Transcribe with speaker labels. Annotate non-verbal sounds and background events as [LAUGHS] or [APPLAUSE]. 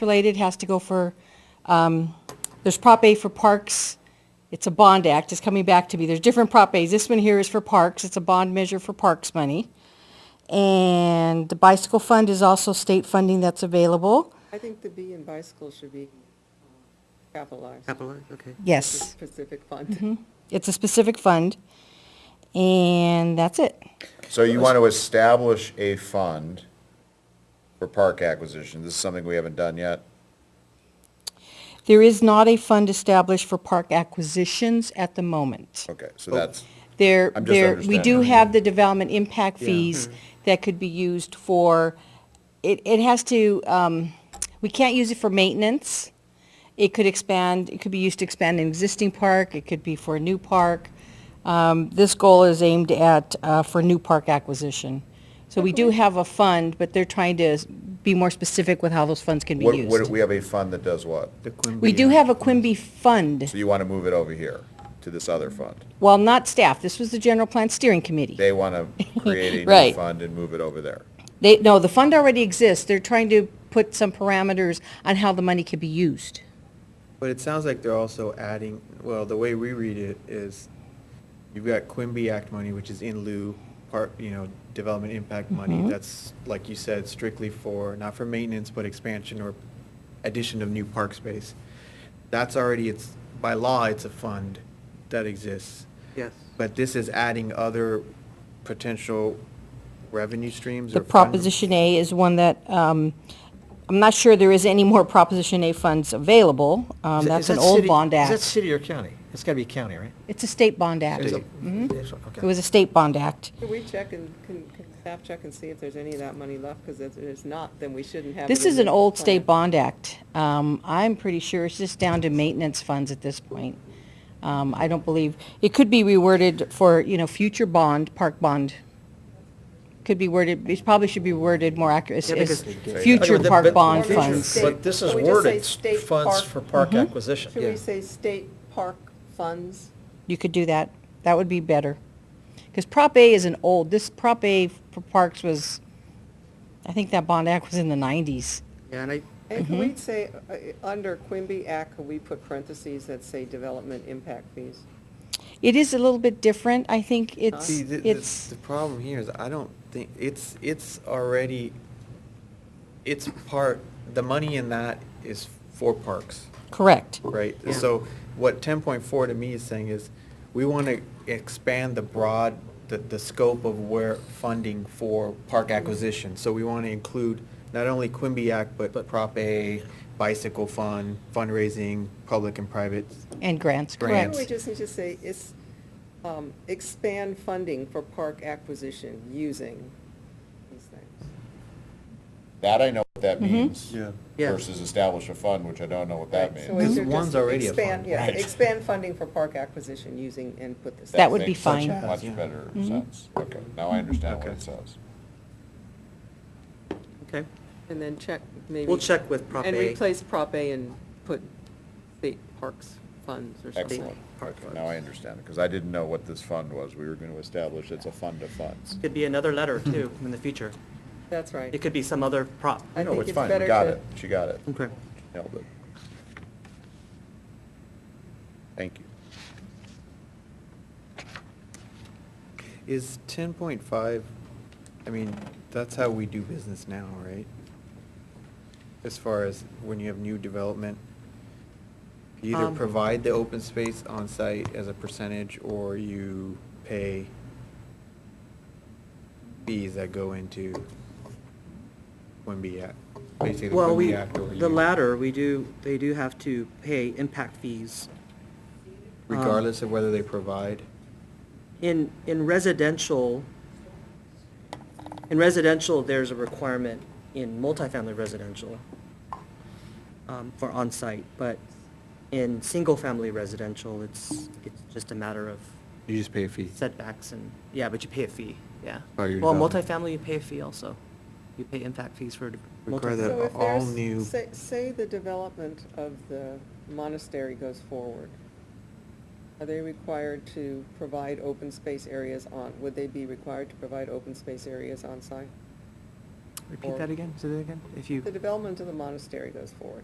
Speaker 1: related has to go for, um, there's Prop A for parks. It's a bond act. It's coming back to me. There's different Prop As. This one here is for parks. It's a bond measure for parks money. And the bicycle fund is also state funding that's available.
Speaker 2: I think the B in bicycle should be uh, capitalized,
Speaker 3: Capitalized, okay.
Speaker 2: the
Speaker 1: Yes.
Speaker 2: specific
Speaker 1: Mm-hmm.
Speaker 2: fund.
Speaker 1: It's a specific fund. And that's it.
Speaker 4: So you want to establish a fund for park acquisition. This is something we haven't done yet.
Speaker 1: There is not a fund established for park acquisitions at the moment.
Speaker 4: Okay, so that's,
Speaker 1: There,
Speaker 4: I'm just
Speaker 1: there, we do
Speaker 4: understanding.
Speaker 1: have the development impact fees that could be used for, it, it has to, um, we can't use it for maintenance. It could expand, it could be used to expand an existing park, it could be for a new park. Um, this goal is aimed at, uh, for new park acquisition. So we do have a fund, but they're trying to s- be more specific with how those funds can be
Speaker 4: what, what,
Speaker 1: used.
Speaker 4: we have a fund that does what?
Speaker 1: We do have a Quimby fund,
Speaker 4: So you want to move it over here to this other fund?
Speaker 1: well, not staff, this was the general plan steering committee.
Speaker 4: They want
Speaker 1: [LAUGHS]
Speaker 4: to create a new
Speaker 1: Right.
Speaker 4: fund and move it over there.
Speaker 1: They, no, the fund already exists. They're trying to put some parameters on how the money could be used.
Speaker 3: But it sounds like they're also adding, well, the way we read it is, you've got Quimby Act money, which is in lieu, part, you know, development impact
Speaker 1: Mm-hmm.
Speaker 3: money, that's, like you said, strictly for, not for maintenance, but expansion or addition of new park space. That's already, it's, by law, it's a fund that exists.
Speaker 2: Yes.
Speaker 3: But this is adding other potential revenue streams
Speaker 1: The
Speaker 3: or. fund-
Speaker 1: Proposition A is one that, um, I'm not sure there is any more Proposition A funds available. Um,
Speaker 5: Is that-
Speaker 1: that's
Speaker 5: is
Speaker 1: an
Speaker 5: that
Speaker 1: old
Speaker 5: city-
Speaker 1: bond
Speaker 5: Is that
Speaker 1: act.
Speaker 5: city or county? It's gotta be county, right?
Speaker 1: It's a state bond act.
Speaker 5: Is it-
Speaker 1: It Mhm.
Speaker 5: Yes, okay.
Speaker 1: was a state bond act.
Speaker 2: Can we check and, can, can staff check and see if there's any of that money left? Because if there's not, then we shouldn't have. it
Speaker 1: This
Speaker 2: in
Speaker 1: is
Speaker 2: the
Speaker 1: an old
Speaker 2: plan.
Speaker 1: state bond act. Um, I'm pretty sure it's just down to maintenance funds at this point. Um, I don't believe, it could be reworded for, you know, future bond, park bond. Could be worded, it probably should be worded more accurate,
Speaker 5: Yeah,
Speaker 1: as
Speaker 5: because-
Speaker 1: future
Speaker 5: But-
Speaker 1: park
Speaker 5: but-
Speaker 1: bond
Speaker 2: Future
Speaker 1: funds.
Speaker 2: state-
Speaker 5: But this is
Speaker 2: Can we just say
Speaker 5: worded,
Speaker 2: state
Speaker 5: funds
Speaker 2: park?
Speaker 5: for park acquisition.
Speaker 2: Should
Speaker 5: Yeah.
Speaker 2: we say state park funds?
Speaker 1: You could do that. That would be better. Because Prop A is an old, this Prop A for parks was, I think that bond act was in the nineties.
Speaker 5: Yeah, and I,
Speaker 2: And
Speaker 1: Mm-hmm.
Speaker 2: can we say, uh, uh, under Quimby Act, can we put parentheses that say development impact fees?
Speaker 1: It is a little bit different. I think it's,
Speaker 3: See, the, the,
Speaker 1: it's,
Speaker 3: the problem here is I don't think, it's, it's already, it's part, the money in that is for parks,
Speaker 1: correct.
Speaker 3: right? So what ten point four to me is saying is, we want to expand the broad, the, the scope of where funding for park acquisition. So we want to include not only Quimby Act, but Prop A, bicycle fund, fundraising, public and private.
Speaker 1: And grants,
Speaker 2: Maybe
Speaker 1: correct.
Speaker 3: Grants.
Speaker 2: we just need to say, is, um, expand funding for park acquisition using these things.
Speaker 4: That I know what that
Speaker 1: Mm-hmm.
Speaker 4: means
Speaker 5: Yeah.
Speaker 4: versus establish a fund, which I don't know what that
Speaker 2: Right, so
Speaker 4: means.
Speaker 2: is
Speaker 3: This
Speaker 2: there
Speaker 3: one's
Speaker 2: just
Speaker 3: already a
Speaker 2: expand-
Speaker 3: fund,
Speaker 2: Yeah,
Speaker 4: right.
Speaker 2: expand funding for park acquisition using input this.
Speaker 1: That would be
Speaker 4: makes
Speaker 1: fine.
Speaker 4: Much
Speaker 3: Yeah.
Speaker 4: better
Speaker 1: Mhm.
Speaker 4: sense. Okay, now I understand what
Speaker 3: Okay.
Speaker 4: it says.
Speaker 5: okay,
Speaker 2: And then check maybe.
Speaker 5: we'll check with Prop
Speaker 2: And
Speaker 5: A.
Speaker 2: replace Prop A and put state parks funds or something.
Speaker 4: Excellent.
Speaker 5: Park
Speaker 4: Okay, Now I
Speaker 5: funds.
Speaker 4: understand it, because I didn't know what this fund was. We were going to establish it's a fund of funds.
Speaker 6: Could be another letter too in the future.
Speaker 2: That's right.
Speaker 6: It could be some other prop.
Speaker 2: I
Speaker 4: No,
Speaker 2: think
Speaker 4: it's
Speaker 2: it's
Speaker 4: fine, we
Speaker 2: better
Speaker 4: got
Speaker 2: to-
Speaker 4: it. She got it.
Speaker 5: Okay.
Speaker 4: Nailed it. Thank you.
Speaker 3: Is ten point five, I mean, that's how we do business now, right? As far as when you have new development, you either
Speaker 2: Um,
Speaker 3: provide the open space on site as a percentage, or you pay fees that go into Quimby Act, basically the
Speaker 6: Well, we,
Speaker 3: Quimby Act. or
Speaker 6: the
Speaker 3: you-
Speaker 6: latter, we do, they do have to pay impact fees. um,
Speaker 3: Regardless of whether they provide,
Speaker 6: In, in residential, in residential, there's a requirement in multifamily residential um, for on-site, but in single-family residential, it's, it's just a matter of
Speaker 3: you just pay a fee.
Speaker 6: setbacks and, yeah, but you pay a fee, yeah.
Speaker 3: Oh, you're
Speaker 6: Well,
Speaker 3: done.
Speaker 6: multifamily, you pay a fee also. You pay impact fees for
Speaker 3: Require that
Speaker 2: So
Speaker 6: multifamily.
Speaker 2: if
Speaker 3: all
Speaker 2: there's-
Speaker 3: new-
Speaker 2: Say, say the development of the monastery goes forward. Are they required to provide open space areas on, would they be required to provide open space areas on site?
Speaker 5: Repeat
Speaker 2: or-
Speaker 5: that again, say that again, if you.
Speaker 2: The development of the monastery goes forward.